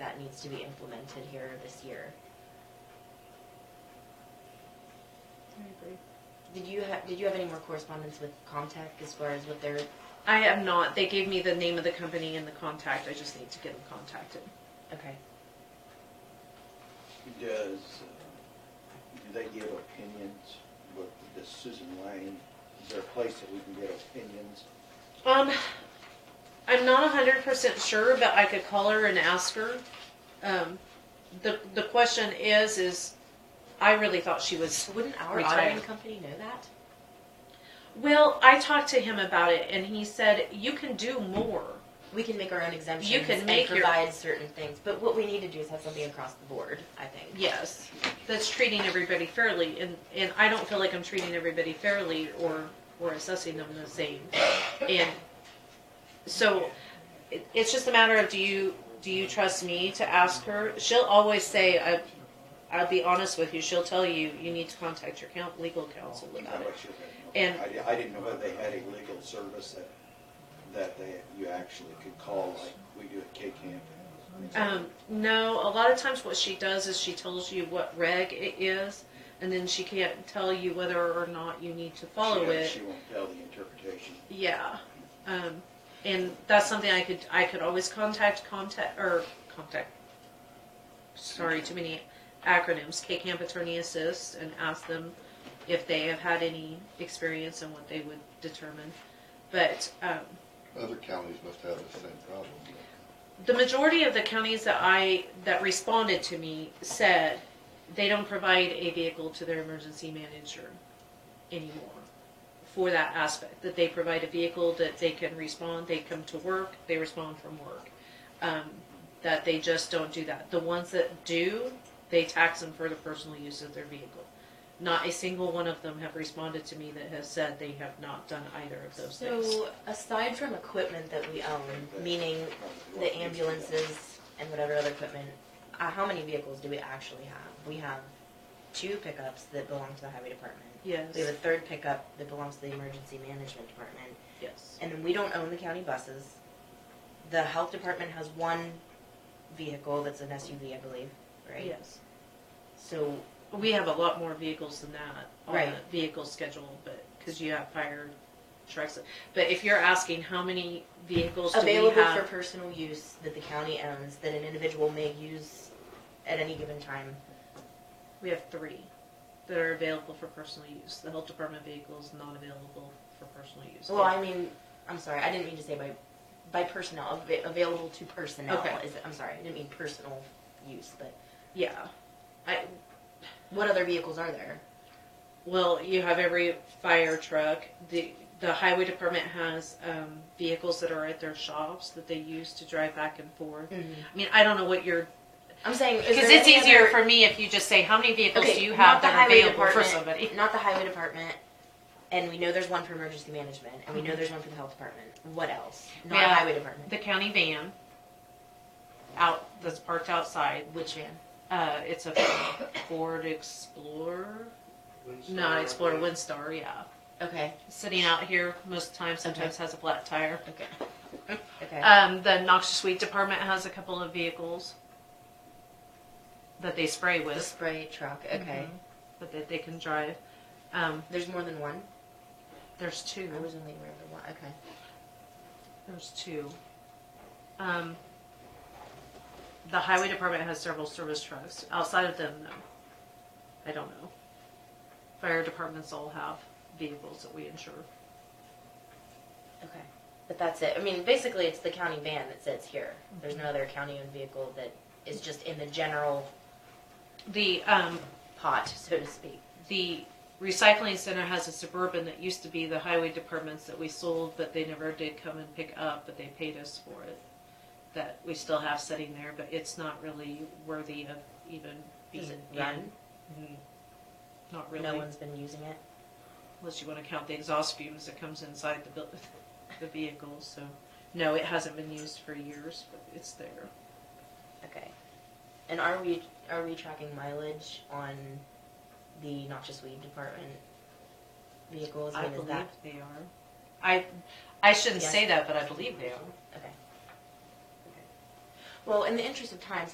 needs to be implemented here this year. I agree. Did you have, did you have any more correspondence with Comtech as far as what they're, I am not. They gave me the name of the company and the contact. I just need to get them contacted. okay. Does, uh, do they give opinions with the Susan Lane? Is there a place that we can get opinions? Um, I'm not hundred percent sure, but I could call her and ask her. Um, the the question is, is I really thought she was. Wouldn't our Retire. auditing company know that? Well, I talked to him about it, and he said you can do more. We can make our own exemptions. can make And your- provide certain things, but what we need to do is have something across the board, I think. Yes, that's treating everybody fairly, and and I don't feel like I'm treating everybody fairly or or assessing them the same. And so, it, it's just a matter of do you do you trust me to ask her? She'll always say I. I'll be honest with you. She'll tell you you need to contact your coun legal counsel How about it. much of that? And- I, di- I didn't know whether they had a legal service that, that they, you actually could call like we do at K-Camp. Um, no, a lot of times what she does is she tells you what reg it is, and then she can't tell you whether or not you need to follow She- uh, it. She won't tell the interpretation. Yeah, um, and that's something I could I could always contact contact or contact. Sorry, too many acronyms. K Camp Attorney Assist and ask them if they have had any experience and what they would determine. But um, Other counties must have the same problem. the majority of the counties that I that responded to me said they don't provide a vehicle to their emergency manager anymore for that aspect that they provide a vehicle that they can respond they come to work they respond from work um, that they just don't do that the ones that do they tax them for the personal use of their vehicle not a single one of them have responded to me that has said they have not done either of those things So aside from equipment that we own, meaning Probably the won't use ambulances and whatever other equipment, uh, how many vehicles do we actually have? We have two pickups that belong to the highway department. yes We have a third pickup that belongs to the emergency management department. yes And then we don't own the county buses. The health department has one vehicle that's an SUV, I believe, right? yes So, We have a lot more vehicles than that on Right. the vehicle schedule, but because you have fire trucks. But if you're asking how many vehicles do available we for have, personal use that the county owns, that an individual may use at any given time. we have three that are available for personal use. The health department vehicle is not available for personal use. Well, I mean, I'm sorry, I didn't mean to say by, by personnel, av- available to personnel. Okay. Is, I'm sorry, I didn't mean personal use, but yeah. I what other vehicles are there? well, you have every fire truck. the The highway department has um, vehicles that are at their shops that they use to drive back and forth. I mean, I don't know what you're I'm saying, is Mm-hmm. because there it's any easier other- for me if you just say how many vehicles Okay, do you not have the that are highway available for department, somebody. Not the highway department, and we know there's one for emergency management, and we know there's one for the health department. What else? Not Yeah. highway department. the county van out that's parked outside. Which van? Uh, it's a Ford Explorer, not Explorer Windstar, yeah. Okay, Sitting out here most of the time, sometimes has a flat tire. okay, Uh, okay. Um, the noxious weed department has a couple of vehicles that they spray the with, spray truck. Okay, Mhm. but that they can drive. Um, there's more than one. there's two. I was only aware of the one. Okay, There's two. Um, the highway department has several service trucks. Outside of them, no. I don't know. Fire departments all have vehicles that we insure. okay. But that's it. I mean, basically, it's the county van that sits here. There's no other county-owned vehicle that is just in the general The, um, pot, so to speak. the recycling center has a suburban that used to be the highway departments that we sold, but they never did come and pick up, but they paid us for it. That we still have sitting there, but it's not really worthy of even being Does it in. run? Mm, Not really. No one's been using it. unless you want to count the exhaust fumes that comes inside the buil- the vehicle. So, no, it hasn't been used for years, but it's there. Okay. And are we, are we tracking mileage on the noxious weed department vehicles? I mean, is believe that- they are. I I shouldn't Yes. say that, but I believe they are. Okay. Okay. Well, in the interest of time,